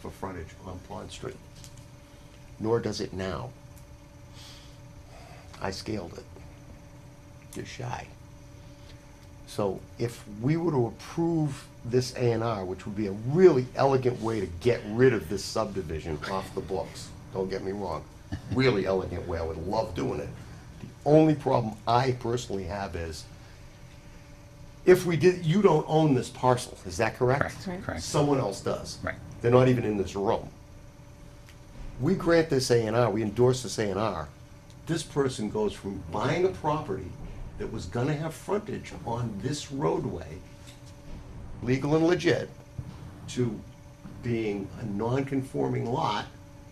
frontage on Pond Street. nor does it now. I scaled it, just shy. So if we were to approve this A and R, which would be a really elegant way to get rid of this subdivision off the books, don't get me wrong, really elegant way, I would love doing it. The only problem I personally have is, if we did, you don't own this parcel, is that correct? Correct, correct. Someone else does. Right. They're not even in this room. We grant this A and R, we endorse this A and R. This person goes from buying a property that was gonna have frontage on this roadway, legal and legit, to being a non-conforming lot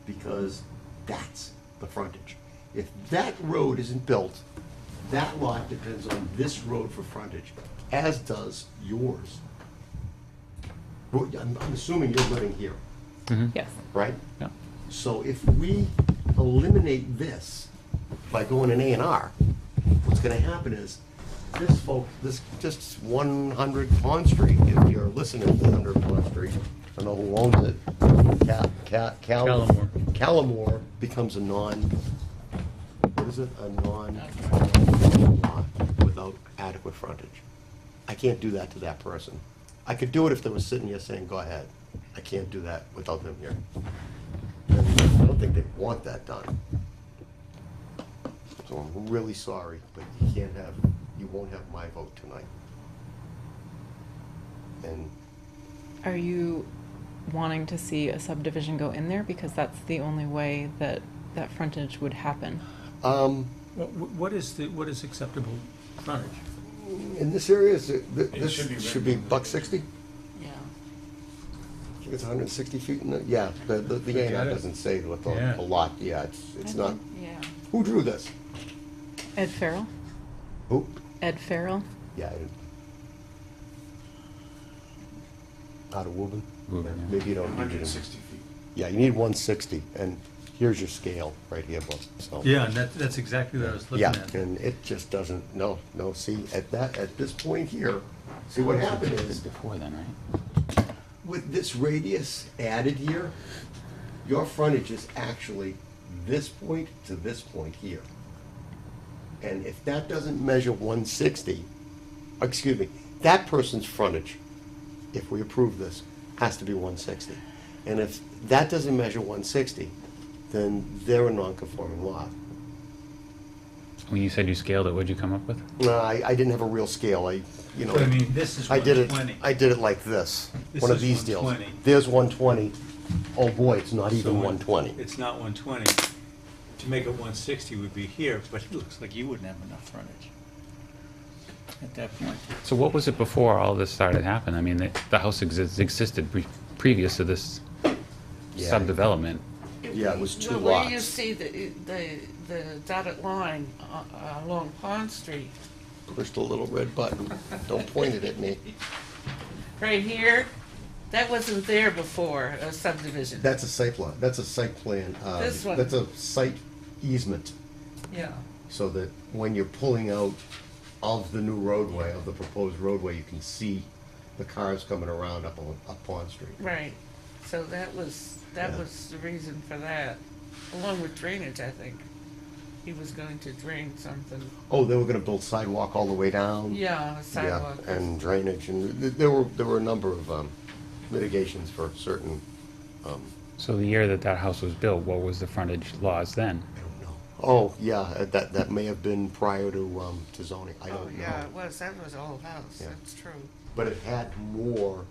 because that's the frontage. If that road isn't built, that lot depends on this road for frontage, as does yours. Well, I'm, I'm assuming you're living here, Yes. right? Yeah. So if we eliminate this by going an A and R, what's gonna happen is, this folk, this, just one hundred Pond Street, if you're listening to one hundred Pond Street, I know who owns it. Ca- Ca- Cal- Callamore. Callamore becomes a non, what is it, a non, lot without adequate frontage. I can't do that to that person. I could do it if they were sitting here saying, go ahead. I can't do that without them here. I don't think they want that done. So I'm really sorry, but you can't have, you won't have my vote tonight. And Are you wanting to see a subdivision go in there because that's the only way that that frontage would happen? um, Wha- wha- What is the, what is acceptable frontage? in this area, is it, th- It this should be should be buck sixty? Yeah. I think it's hundred and sixty feet in the, yeah, the, the, the A and R Got it. doesn't say what the, Yeah. the lot, yeah, it's, it's not. Yeah. Who drew this? Ed Farrell. Who? Ed Farrell. Yeah. it- Out of Woburn? Woburn, yeah. Maybe you don't need it. Hundred in- and sixty feet. Yeah, you need one sixty, and here's your scale right here, Bob, so. Yeah, and that, that's exactly what I was looking Yeah, at. and it just doesn't, no, no, see, at that, at this point here, see what happened is, Before then, right? with this radius added here, your frontage is actually this point to this point here. And if that doesn't measure one sixty, excuse me, that person's frontage, if we approve this, has to be one sixty. And if that doesn't measure one sixty, then they're a non-conforming lot. When you said you scaled it, what'd you come up with? No, I, I didn't have a real scale, I, you know. But I mean, this is I did it. 120. I did it like this. This one of is these deals. 120. There's 120. Oh boy, it's not So even when- 120. It's not 120. To make it 160 would be here, but it looks like you wouldn't have enough frontage at that point. So what was it before all this started happening? I mean, the, the house exis- existed pre- previous to this Yeah. subdevelopment. Yeah, it was two Well, Where you lots. see the, the, the dotted line uh, uh, along Pond Street, Pushed a little red button. Don't point it at me. right here, that wasn't there before a subdivision. That's a site lot. That's a site plan. uh, This one. That's a site easement, Yeah, so that when you're pulling out of the new roadway, of the proposed roadway, you can see the cars coming around up on, up Pond Street. right. So that was, that Yeah. was the reason for that, along with drainage, I think. He was going to drain something, Oh, they were gonna build sidewalk all the way down? yeah, a sidewalk. Yeah, and drainage, and th- there were, there were a number of um, mitigations for certain, So the year that that house was built, what was the frontage laws then? I don't know. Oh, yeah, uh, that, that may have been prior to, um, to zoning, I Oh, don't yeah, know. it was, that was a whole house, Yeah. that's true. But it had more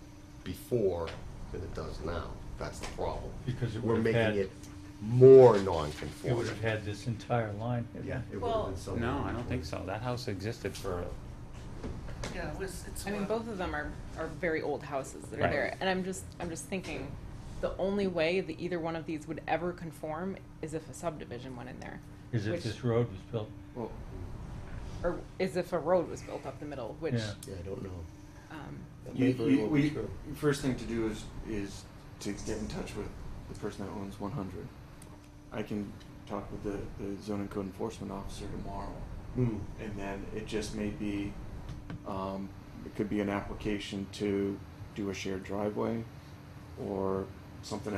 before than it does now, that's the problem. Because it We're would've making had- it more You would non-conforming. have had this entire line. Yeah. it would've Well- been something. No, I don't think so. That house existed for, Yeah, it was, it's. I mean, wild. both of them are, are very old houses that are Right. there, and I'm just I'm just thinking, the only way that either one of these would ever conform is if a subdivision went in there, Is Which- if this road was built, or is if a road was built up the middle, which Yeah. Yeah, I don't know. um, That may You, very you, well we, be true. first thing to do is is to get in touch with the person that owns 100. I can talk with the, the zoning code enforcement officer tomorrow, Hmm. and then it just may be, um, it could be an application to do a shared driveway, or something else.